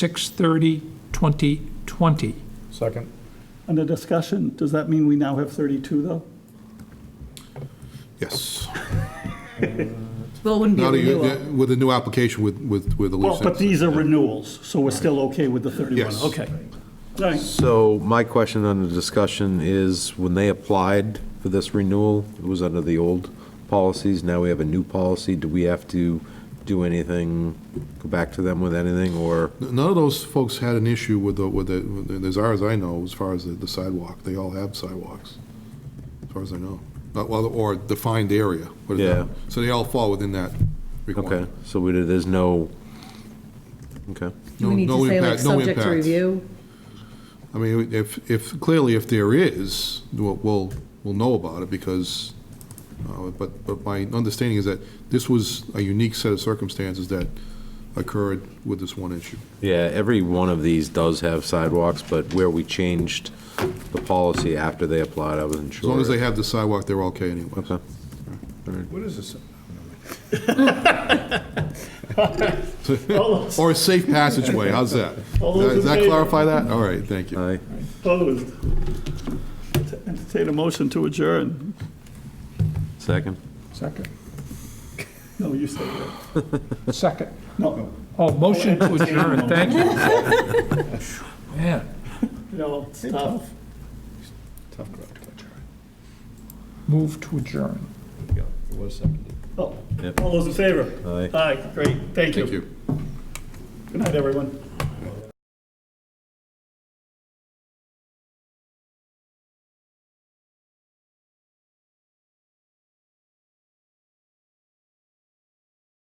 6/30/2020. Second. Under discussion, does that mean we now have 32, though? Yes. Well, it wouldn't be a Not a- renewal. yeah, With a new application with, with, with the Well, loose but ends. these are renewals, so we're still okay with the 31? Yes. Okay. All right, So my question under discussion is, when they applied for this renewal, it was under the old policies, now we have a new policy, do we have to do anything, go back to them with anything, or? None of those folks had an issue with the, with the, with the- as far as I know, as far as the- the sidewalk. They all have sidewalks, as far as I know. Uh, well, Or defined area. what is that? Yeah. So they all fall within that Okay, requirement. so we, there's no, okay. Do we need No- to no say like impact- no subject to impact. review? I mean, if, if, clearly if there is, we'll, we'll we'll know about it because, uh, but, but my understanding is that this was a unique set of circumstances that occurred with this one issue. Yeah, every one of these does have sidewalks, but where we changed the policy after they applied, I wasn't As sure. long as they have the sidewalk, they're okay anyway. Okay. What is this? all those Or a safe passageway, how's that? All those in Does that favor? clarify that? All right, thank you. Aye. opposed. Entertain a motion to adjourn. Second? Second. No, you said that. Second. No, Oh, motion to adjourn, thank you. Man, no, it's tough. Tough crowd to catch, all right. move to adjourn. Yeah, It was seconded. Oh, Yep. All those in favor? Aye. Aye, great, thank you. Thank you. Good night, everyone.